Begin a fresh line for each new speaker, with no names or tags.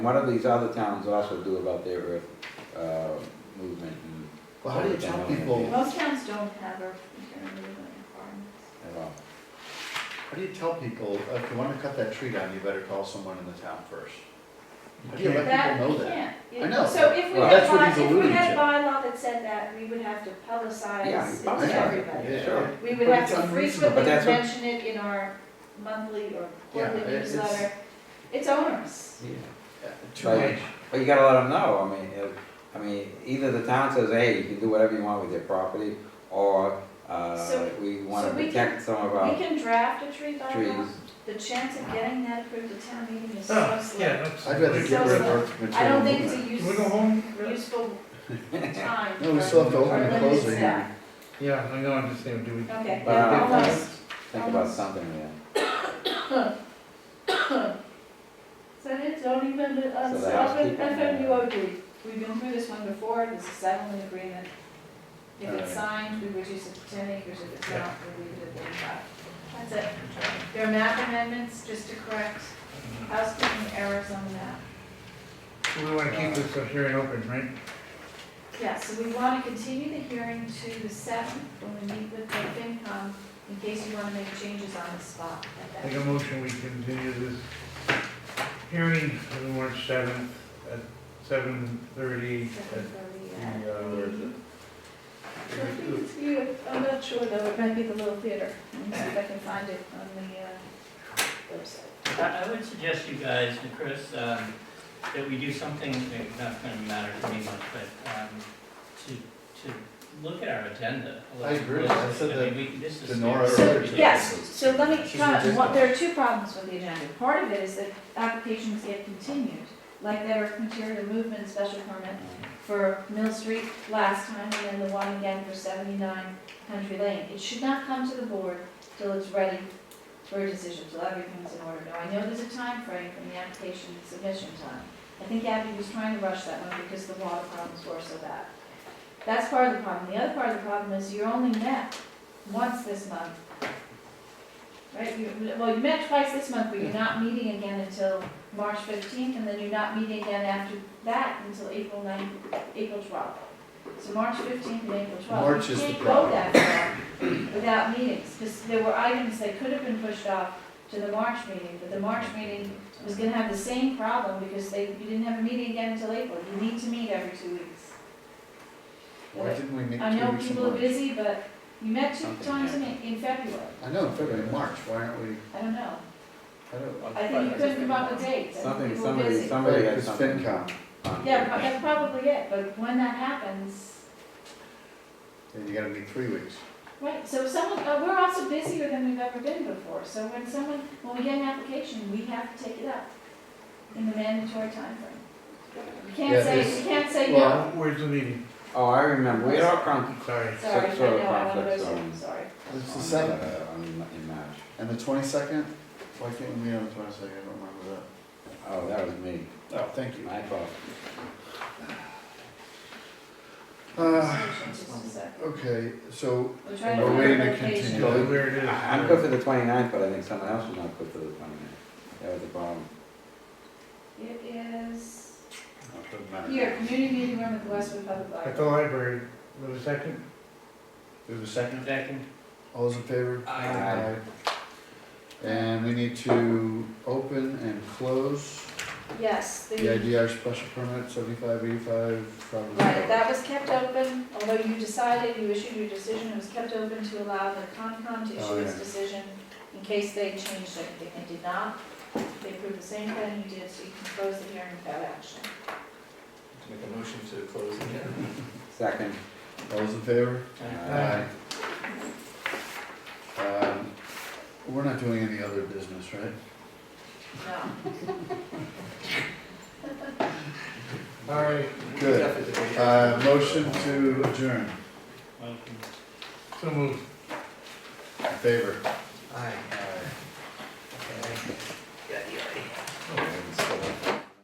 What do these other towns also do about their earth, uh, movement and
Well, how do you tell people,
Most towns don't have earth removal requirements.
and all?
how do you tell people, uh, if you wanna cut that tree down, you better call someone in the town first? How do you let
That,
people know
we
that?
can't.
I know.
So if we
Well,
had
that's what
by,
he's
if we
alluding
had
to.
bylaw that said that, we would have to
Yeah,
publicize it
publicize it,
to everybody.
Yeah,
Sure.
We would
But
have
it's
to
unreasonable.
frequently
But that's what-
mention it in our monthly or
Yeah,
quarterly
it- it's-
newsletter. It's onerous.
Yeah.
yeah, Too
Like-
much,
But you gotta let them know, I mean, if, I mean, either the town says, hey, you can do whatever you want with your property, or, uh,
So-
we wanna
so we
protect some of
We
our
can draft a tree bylaw.
trees.
The chance of getting that approved at town meeting is so
Oh,
slim.
yeah,
I'd rather
absolutely.
get rid of earth
I
material
don't think it's
movement.
a
Can we go
use,
home?
useful time.
No, we
for-
still have to
for
open and
limited
close the
staff.
hearing.
Yeah, I know, I'm just saying, do we?
Okay,
But,
yeah,
uh,
almost.
Think about something there.
So it's only been, uh,
So
so
the house
I've been-
people-
I've been UOD. we've been through this one before, this is settlement agreement. If it's
Uh,
Alright.
signed, we reduce it to ten acres, if it's
Yeah.
not, we leave it at thirty-five. That's it. There are map amendments, just to correct
Mm-hmm.
housekeeping errors on the map.
So We wanna keep this uh, hearing open, right?
Yeah, so we want to continue the hearing to the seventh, when we meet with the FinCom, in case you want to make changes on the spot at that.
Make a motion, we continue this hearing on March seventh at seven thirty at
time.
the, uh, where is it?
I think it's you, I'm not sure though, it might be the Little Theater, let me see if I can find it on the uh, website.
I I would suggest you guys, and Chris, um, that we do something, it's not gonna matter to me much, but, um, to, to look at our agenda. a
I
little
agree.
bit.
I said
I
that
mean, we, this is.
to Nora
it's
earlier
ridiculous.
today.
Yes, so let me,
She's
try- what-
ridiculous.
there are two problems with the agenda. Part of it is that applications get continued, like there were material movement special permit for Mill Street last time, and then the one again for seventy-nine Country Lane. It should not come to the board till it's ready for a decision, till everything's in order. Now, I know there's a time frame from the application to submission time. I think Abby was trying to rush that one because the water problems were so bad. That's part of the problem. The other part of the problem is you're only met once this month. Right, you, well, you met twice this month, but you're not meeting again until March fifteenth, and then you're not meeting again after that until April ninth, April twelfth. So March fifteenth and April
March
twelfth. You
is the
can't go
problem.
that far without meetings, because there were items that could have been pushed off to the March meeting, but the March meeting was gonna have the same problem because they, you didn't have a meeting again until April. You need to meet every two weeks.
Why didn't we make
I
two
know
weeks in
people are
March?
busy, but you met two
Something
times in, in February.
I know, in February, March, why aren't we,
I don't know.
I don't,
I think you couldn't come up with dates. I think
Something,
people were
somebody,
busy.
somebody
Right,
has
'cause
something.
FinCom.
on
Yeah,
there.
pro- that's probably it, but when that happens,
then you gotta meet three weeks.
right, so someone, uh, we're also busier than we've ever been before. So when someone, when we get an application, we have to take it up in the mandatory timeframe. We
Yeah,
can't say,
it's-
we can't say
well,
no.
Uh, Where's the meeting?
Oh, I remember, we had all come,
Sorry.
Sorry, I
some sort of
know, I want to
conflicts
go,
on-
soon, sorry.
It's the
on,
seventh,
uh, on, in March,
Um, and the twenty-second, why can't we meet on the twenty-second, I don't remember
oh, that was me,
that. Oh, thank you.
my fault.
Uh,
Just a sec.
okay, so,
We're trying to
We're
find
waiting
a
to
location.
continue.
So where it is.
I- I'm good for the 29th, but I think someone else was not good for the 29th. that was the problem.
It is,
doesn't matter.
here, community meeting room at the Westwood Public
At
Library.
the library, with a second?
There's a second,
Second.
all those in favor?
Aye.
And we need to open and close
Yes,
the
the,
IDR special permit, seventy-five eighty-five Providence
right,
Road.
that was kept open, although you decided, you issued your decision, it was kept open to allow the Concom to
Oh,
issue its
yeah.
decision in case they changed anything, they did not. They approved the same thing you did, so you can close the hearing without action.
Make a motion to close the hearing.
Second,
All those in favor?
Aye.
Aye. Um, We're not doing any other business, right?
No,
All right,
Good. Uh, motion to adjourn,
Welcome.
so moved.
in favor?
Aye.
aye.